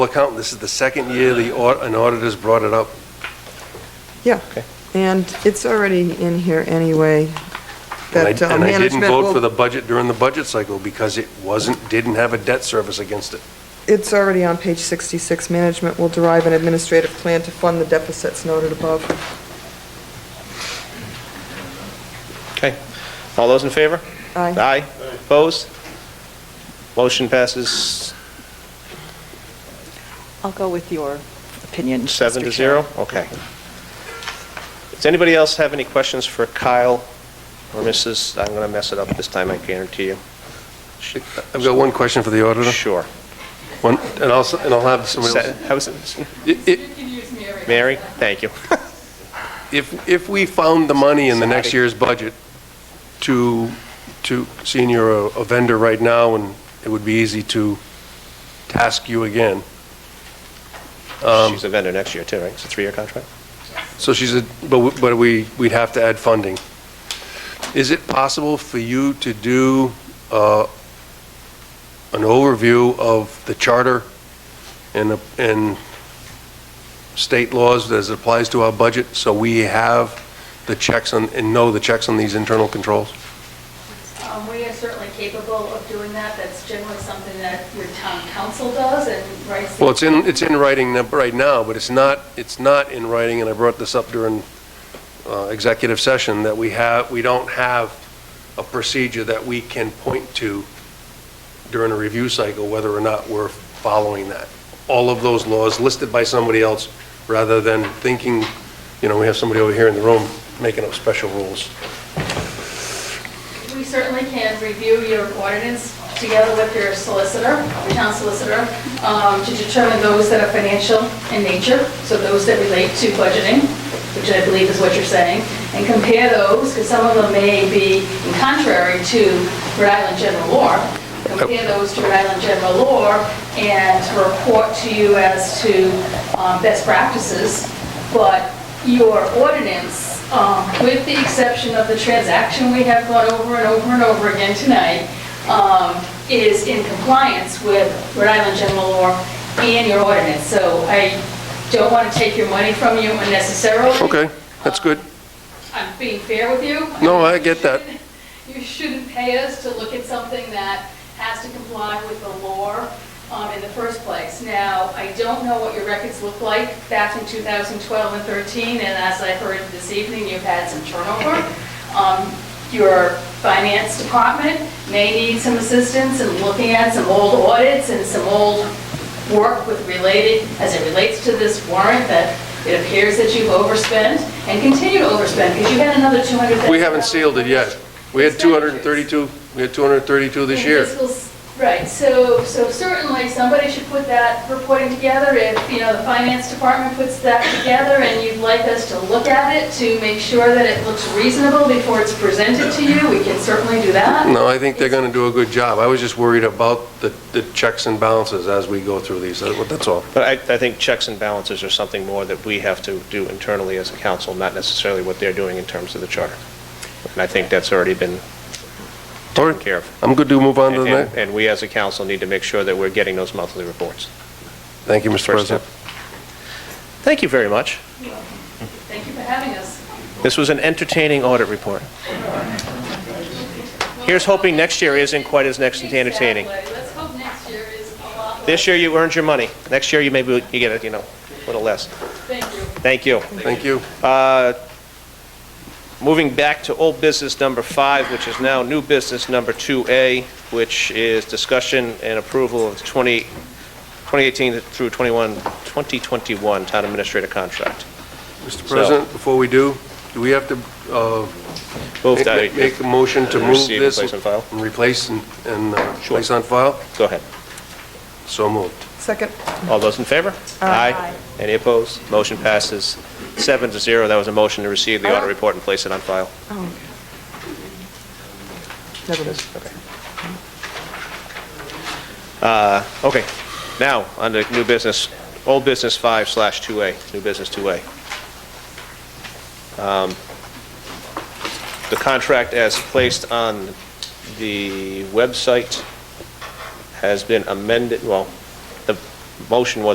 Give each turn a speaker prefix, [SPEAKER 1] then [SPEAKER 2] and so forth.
[SPEAKER 1] accountant, this is the second year the, au- an auditor's brought it up.
[SPEAKER 2] Yeah.
[SPEAKER 1] Okay.
[SPEAKER 2] And it's already in here anyway.
[SPEAKER 1] And I-
[SPEAKER 2] that, uh,
[SPEAKER 1] And I didn't
[SPEAKER 2] management
[SPEAKER 1] vote
[SPEAKER 2] will-
[SPEAKER 1] for the budget during the budget cycle because it wasn't, didn't have a debt service against it.
[SPEAKER 2] It's already on page 66. Management will derive an administrative plan to fund the deficits noted above.
[SPEAKER 3] Okay. All those in favor?
[SPEAKER 2] Aye.
[SPEAKER 3] Aye. Opposed? Motion passes
[SPEAKER 4] I'll go with your opinion.
[SPEAKER 3] seven to
[SPEAKER 4] Mr. Chair.
[SPEAKER 3] zero? Okay. Does anybody else have any questions for Kyle or Mrs., I'm going to mess it up this time, I guarantee you.
[SPEAKER 1] I've got one question for the auditor.
[SPEAKER 3] Sure.
[SPEAKER 1] One, and I'll, s- and I'll have somebody else.
[SPEAKER 3] How is it?
[SPEAKER 1] I- i-
[SPEAKER 5] You can use me every.
[SPEAKER 3] Mary? Thank you.
[SPEAKER 1] If, if we found the money in the next year's budget to, to, seeing you're a a vendor right now, and it would be easy to task you again.
[SPEAKER 3] She's a vendor next year, too, right? It's a three-year contract?
[SPEAKER 1] So she's a, but, we- but we, we'd have to add funding. Is it possible for you to do, uh, an overview of the charter and, the- and state laws as it applies to our budget, so we have the checks on, and know the checks on these internal controls?
[SPEAKER 5] Um, We are certainly capable of doing that. That's generally something that your town council does and writes. the-
[SPEAKER 1] Well, it's in, it's in writing n- right now, but it's not, it's not in writing, and I brought this up during uh, executive session, that we have, we don't have a procedure that we can point to during a review cycle, whether or not we're following that. All of those laws listed by somebody else, rather than thinking, you know, we have somebody over here in the room making up special rules.
[SPEAKER 5] We certainly can review your ordinance together with your solicitor, your town solicitor, um, to determine those that are financial in nature, so those that relate to budgeting, which I believe is what you're saying, and compare those, because some of them may be contrary to Rhode Island general law. Compare those to Rhode Island general law and report to you as to um, best practices, but your ordinance, um, with the exception of the transaction we have gone over and over and over again tonight, um, is in compliance with Rhode Island general law and your ordinance. So I don't want to take your money from you unnecessarily.
[SPEAKER 1] Okay, that's good.
[SPEAKER 5] I'm being fair with you.
[SPEAKER 1] No, I get that.
[SPEAKER 5] You shouldn't pay us to look at something that has to comply with the law um, in the first place. Now, I don't know what your records look like back in 2012 and 13, and as I heard this evening, you've had some turnover. Um, Your finance department may need some assistance in looking at some old audits and some old work with related, as it relates to this warrant, that it appears that you've overspent and continue to overspend, because you had another 200.
[SPEAKER 1] We haven't sealed it yet. We had 232, we had 232 this
[SPEAKER 5] In
[SPEAKER 1] year.
[SPEAKER 5] fiscals- Right, so, so certainly, somebody should put that reporting together, if, you know, the finance department puts that together, and you'd like us to look at it to make sure that it looks reasonable before it's presented to you, we can certainly do that.
[SPEAKER 1] No, I think they're going to do a good job. I was just worried about the, the checks and balances as we go through these, That- that's all.
[SPEAKER 3] But I, I think checks and balances are something more that we have to do internally as a council, not necessarily what they're doing in terms of the charter. And I think that's already been
[SPEAKER 1] All
[SPEAKER 3] taken
[SPEAKER 1] right,
[SPEAKER 3] care of.
[SPEAKER 1] I'm good to move on to the
[SPEAKER 3] And,
[SPEAKER 1] next.
[SPEAKER 3] and we as a council need to make sure that we're getting those monthly reports.
[SPEAKER 1] Thank you, Mr.
[SPEAKER 3] First step.
[SPEAKER 1] President.
[SPEAKER 3] Thank you very much.
[SPEAKER 5] Thank you for having us.
[SPEAKER 3] This was an entertaining audit report. Here's hoping next year isn't quite as next entertaining.
[SPEAKER 5] Exactly. Let's hope next year is a lot less.
[SPEAKER 3] This year you earned your money. Next year you maybe, you get it, you know, a little less.
[SPEAKER 5] Thank you.
[SPEAKER 3] Thank you.
[SPEAKER 1] Thank you.
[SPEAKER 3] Moving back to old business number five, which is now new business number 2A, which is discussion and approval of 20 2018 through 21, 2021 town administrator contract.
[SPEAKER 1] Mr. President, before we do, do we have to uh,
[SPEAKER 3] Move
[SPEAKER 1] make-
[SPEAKER 3] that,
[SPEAKER 1] make make a motion to move
[SPEAKER 3] Receive,
[SPEAKER 1] this?
[SPEAKER 3] place on file?
[SPEAKER 1] And replace and, and uh,
[SPEAKER 3] Sure.
[SPEAKER 1] place on file?
[SPEAKER 3] go ahead.
[SPEAKER 1] So moved.
[SPEAKER 2] Second.
[SPEAKER 3] All those in favor?
[SPEAKER 2] Aye.
[SPEAKER 3] Any opposed? Motion passes seven to zero. That was a motion to receive the audit
[SPEAKER 2] Oh.
[SPEAKER 3] report and place it on file.
[SPEAKER 2] Oh. Never mind.
[SPEAKER 3] Uh, Okay. Now, on to new business, old business five slash 2A, new business 2A. Um, The contract as placed on the website has been amended, well, the motion was